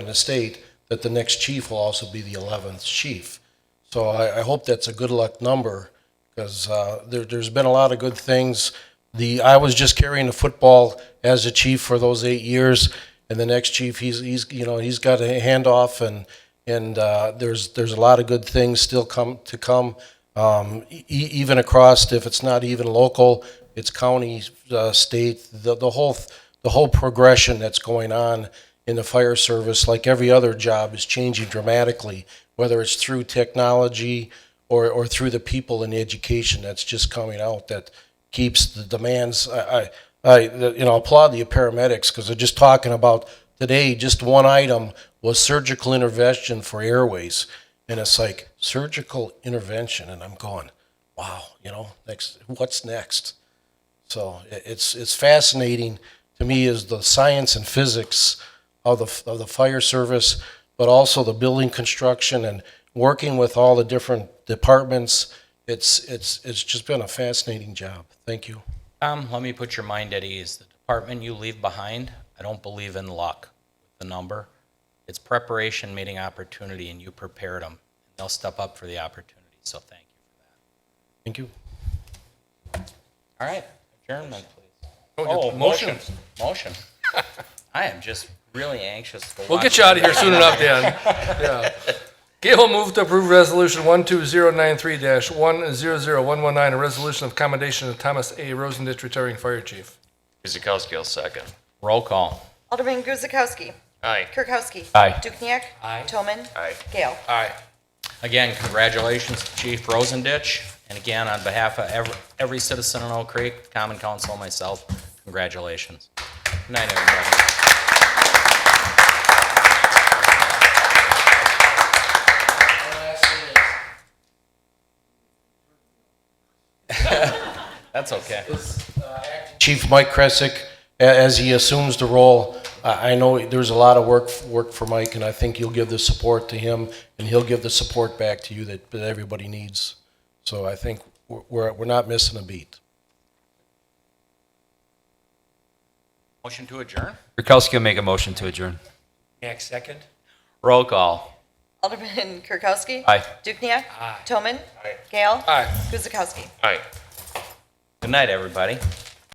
in the state, that the next chief will also be the 11th chief. So I, I hope that's a good luck number, because uh, there, there's been a lot of good things. The, I was just carrying the football as a chief for those eight years, and the next chief, he's, he's, you know, he's got a handoff, and, and uh, there's, there's a lot of good things still come, to come, um, e- e- even across, if it's not even local, it's county, uh, state, the, the whole, th- the whole progression that's going on in the fire service, like every other job, is changing dramatically, whether it's through technology or, or through the people in education that's just coming out that keeps the demands. I, I, I you know, applaud the paramedics because they're just talking about today, just one item was surgical intervention for airways. And it's like surgical intervention. And I'm going, wow, you know, next, what's next? So i- it's, it's fascinating to me is the science and physics of the, f- of the fire service, but also the building construction and working with all the different departments. It's, it's, it's just been a fascinating job. Thank you. Tom, Um, let me put your mind at ease. The department you leave behind, I don't believe in luck with the number. It's preparation meeting opportunity, and you prepared them. They'll step up for the opportunity, so thank you. Thank you. All right, adjournment, please. Oh, motion, motion. I am just really anxious to We'll watch get you out of here soon enough, Dan. Yeah. Gail moved to approve resolution one two zero nine three one zero zero one one nine, a resolution of commendation of Thomas A. Rosendich, retiring fire chief. Guzekowski, I'll second. Roll call. Alderman Guzekowski. Aye. Kirkowski. Aye. Dukenyak. Aye. Toman. Aye. Gale. Aye. Again, congratulations to Chief Rosendich, and again, on behalf of every, every citizen in Oak Creek, Common Council, and myself, congratulations. Good night, everybody. That's okay. uh, Chief Mike Kresick, a- as he assumes the role, I I know there's a lot of work, work for Mike, and I think you'll give the support to him, and he'll give the support back to you that, that everybody needs. So I think we're- we're, we're not missing a beat. Motion to adjourn? Kirkowski will make a motion to adjourn. Next second. Roll call. Alderman Kirkowski. Aye. Dukenyak. Aye. Toman. Aye. Gale. Aye. Guzekowski. Aye. Good night, everybody.